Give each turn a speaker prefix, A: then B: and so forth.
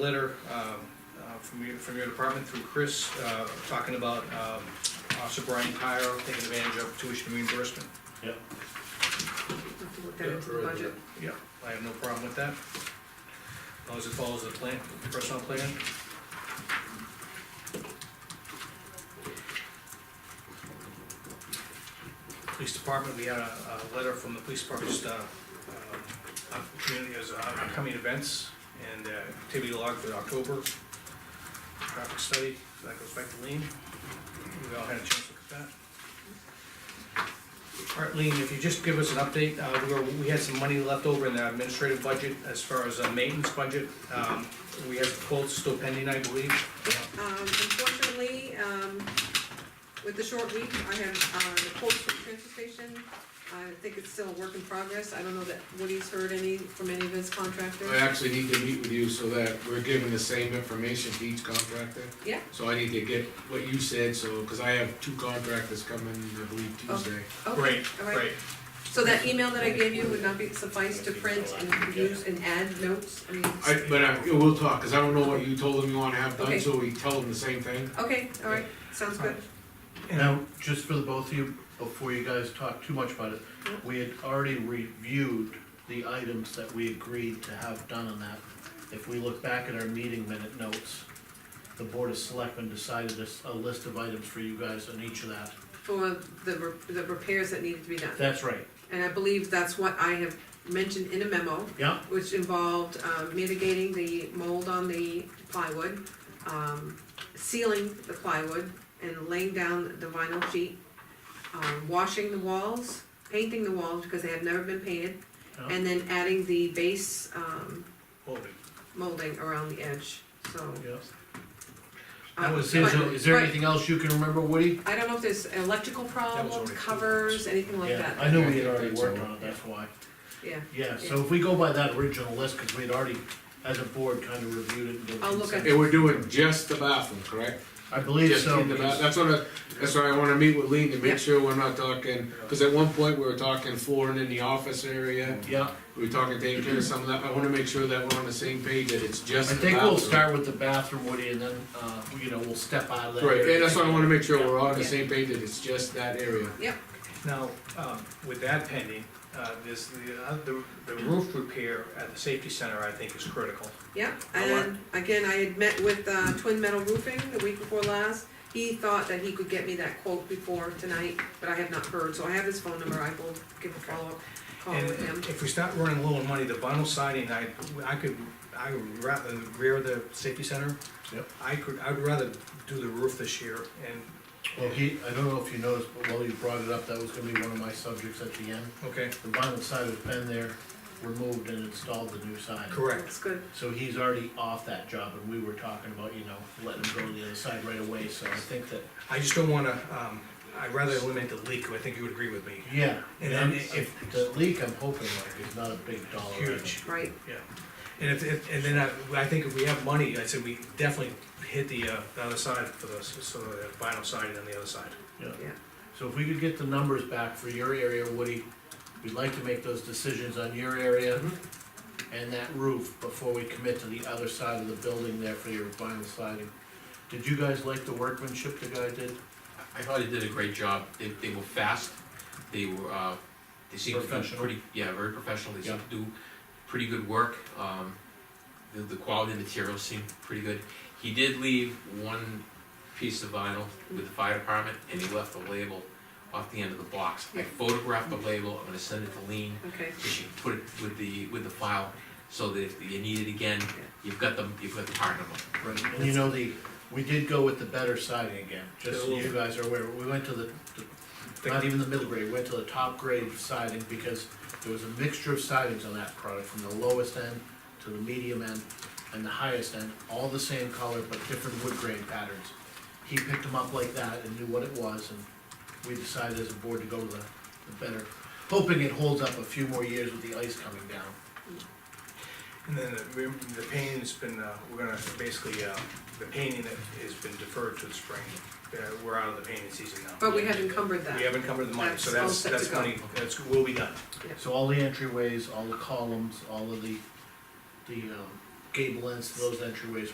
A: letter um, uh, from your, from your department through Chris, uh, talking about um, Officer Brian Pyro taking advantage of tuition reimbursement.
B: Yep,
C: We'll have to look that into the budget.
A: Yeah. I have no problem with that. As long as it follows the plan, personnel plan. Police department, we had a, a letter from the police department, just, uh, uh, up- community as uh, upcoming events and uh, activity log for October. Traffic study, so that goes back to Lean. We all had a chance to look at that. All right, Lean, if you just give us an update, uh, we were, we had some money left over in the administrative budget as far as uh, maintenance budget. Um, we have quotes still pending, I believe.
C: Um, unfortunately, um, with the short week, I have, uh, the quotes from the transfer station. I think it's still a work in progress. I don't know that Woody's heard any from any of his
D: I
C: contractors.
D: actually need to meet with you so that we're giving the same information to each contractor.
C: Yeah.
D: So I need to get what you said, so, cause I have two contractors coming, I believe Tuesday.
C: Okay,
A: Great,
C: all right.
A: great.
C: So that email that I gave you would not be suffice to print and use and add notes? I mean,
D: I, but I, we'll talk, cause I don't know what you told them you wanna have done,
C: Okay.
D: so we tell them the same thing.
C: okay, all right, sounds good.
E: Now, just for the both of you, before you guys talk too much about it, we had already reviewed the items that we agreed to have done on that. If we look back at our meeting minute notes, the Board of Selectmen decided this, a list of items for you guys on each of that.
C: For the, re- the repairs that needed to be done.
E: That's right,
C: And I believe that's what I have mentioned in a memo.
E: yeah,
C: which involved um, mitigating the mold on the plywood, um, sealing the plywood and laying down the vinyl sheet, um, washing the walls, painting the walls because they have never been painted,
E: yeah.
C: and then adding the base um,
A: Hold it.
C: molding around the edge, so.
E: yeah.
C: um,
E: Is there-
C: but-
E: is there
C: but
E: anything else you can remember, Woody?
C: I don't know if there's electrical problems,
A: already-
C: covers, anything like
E: Yeah,
C: that,
E: I know we had already worked on it, that's why.
C: yeah.
E: Yeah, so if we go by that original list, cause we'd already, as a board, kind of reviewed it and given
C: I'll look at
E: consent.
D: And we're doing just the bathroom, correct?
E: I believe
D: Just
E: so.
D: in the bath, that's what I, that's why I wanna meet with Lean to
C: Yeah.
D: make sure we're not talking, cause at one point we were talking flooring in the office area.
E: Yeah,
D: We were talking taking care of some of that, I wanna make sure that we're on the same page, that it's
E: I
D: just the
E: think we'll
D: bathroom.
E: start with the bathroom, Woody, and then, uh, you know, we'll step out of that.
D: Right,
E: area.
D: and that's why I wanna make sure we're all on the
C: Yeah.
D: same page, that it's just that area.
A: Now, um, with that pending, uh, this, the, uh, the- the roof repair at the safety center, I think, is critical.
C: Yeah,
A: I
C: and again, I had met with uh, Twin Metal Roofing the week before last. He thought that he could get me that quote before tonight, but I have not heard, so I have his phone number, I will give a follow-up call
A: And
C: with him.
A: if we start running low on money, the vinyl siding, I, I could, I would rather rear the safety center.
E: Yep.
A: I could, I'd rather do the roof this year and,
E: Well, he, I don't know if you noticed, but while you brought it up, that was gonna be one of my subjects at the end.
A: okay,
E: The vinyl side has been there, removed and installed the new side.
A: correct.
C: That's good,
E: So he's already off that job, and we were talking about, you know, letting him go to the other side right away, so I think that,
A: I just don't wanna, um, I'd rather eliminate the leak, I think you would agree with me.
E: yeah.
A: And then
E: I'm-
A: if-
E: The leak, I'm hoping, like, is not a big dollar. item.
A: Huge,
C: right,
A: yeah. And if, if, and then I, I think if we have money, I said we definitely hit the, uh, the other side for the, so the vinyl siding on the other side.
C: yeah.
E: So if we could get the numbers back for your area, Woody, we'd like to make those decisions on your area and that roof before we commit to the other side of the building there for your vinyl siding. Did you guys like the workmanship the guy did?
F: I thought he did a great job. They, they were fast, they were, uh, they seemed to do
E: Professional.
F: pretty, yeah, very professional, they seemed to do pretty good work. Um, the, the quality of the materials seemed pretty good. He did leave one piece of vinyl with the fire department, and he left the label off the end of the box. I
C: Yeah.
F: photographed the label, I'm gonna send it to Lean,
C: okay,
F: so she can put it with the, with the file, so that if you need it again, you've got the, you've got the part number.
E: Right. And you know, the, we did go with the better siding again, just so you guys are aware, we went to the, the- not even the middle grade, we went to the top grade siding because there was a mixture of sidings on that product, from the lowest end to the medium end and the highest end, all the same color but different wood grain patterns. He picked them up like that and knew what it was, and we decided as a board to go with the, the better, hoping it holds up a few more years with the ice coming down.
A: And then the, the painting's been, uh, we're gonna, basically, uh, the painting that has been deferred to the spring. Uh, we're out of the painting season now.
C: but we have encumbered that.
A: We haven't covered the money, so
C: That's all
A: that's,
C: set to
A: that's
C: go.
A: money, that's, will be done.
E: So all the entryways, all the columns, all of the, the, um, gable ends to those entryways